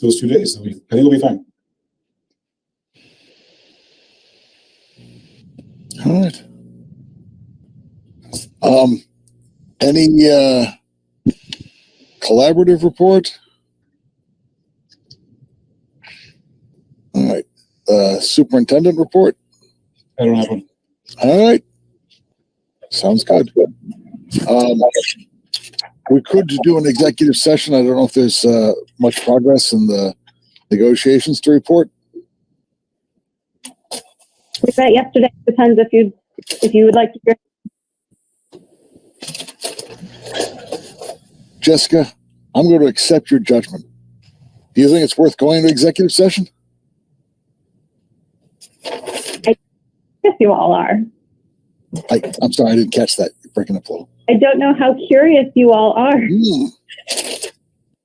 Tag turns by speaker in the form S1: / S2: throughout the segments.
S1: those two days. So we- I think we'll be fine.
S2: All right. Um, any uh, collaborative report? All right. Uh, superintendent report.
S1: I don't have one.
S2: All right. Sounds good. Um, we could do an executive session. I don't know if there's uh, much progress in the negotiations to report.
S3: We met yesterday. Depends if you, if you would like to hear.
S2: Jessica, I'm going to accept your judgment. Do you think it's worth going to executive session?
S3: Yes, you all are.
S2: I, I'm sorry, I didn't catch that. You're breaking up a little.
S3: I don't know how curious you all are.
S1: Mm.
S2: Hmm.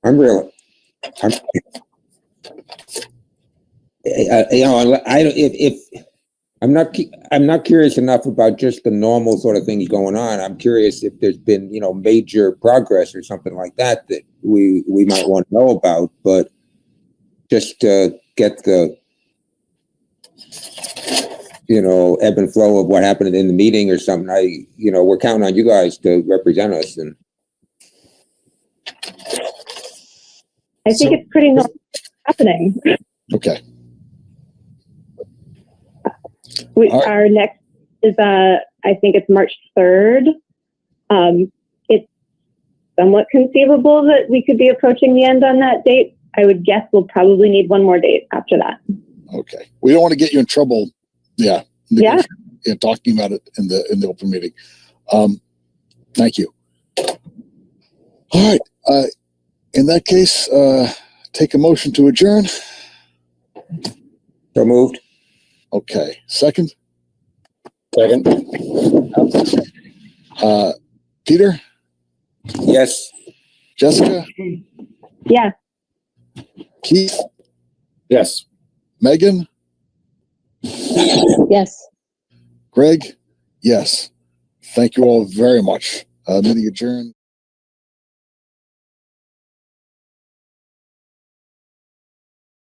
S4: I'm real. I'm, I, I- you know, I, I- if, if, I'm not, cu- I'm not curious enough about just the normal sort of things going on. I'm curious if there's been, you know, major progress or something like that that we, we might want to know about, but just to get the, you know, ebb and flow of what happened in the meeting or something, I, you know, we're counting on you guys to represent us and
S3: I think
S2: So-
S3: it's pretty normal happening.
S2: Okay.
S3: We,
S2: All right.
S3: our next is, uh, I think it's March 3rd. Um, it's somewhat conceivable that we could be approaching the end on that date. I would guess we'll probably need one more date after that.
S2: Okay. We don't want to get you in trouble. Yeah.
S3: Yeah.
S2: Yeah, Talking about it in the in the open meeting. Um, thank you. All right. Uh, in that case, uh, take a motion to adjourn.
S4: so moved.
S2: Okay. Second.
S1: Second.
S2: Uh, Peter,
S4: Yes.
S2: Jessica,
S3: Yeah.
S2: Keith,
S1: Yes.
S2: Megan,
S3: Yes.
S2: Greg. Yes. Thank you all very much. Uh, meeting adjourned.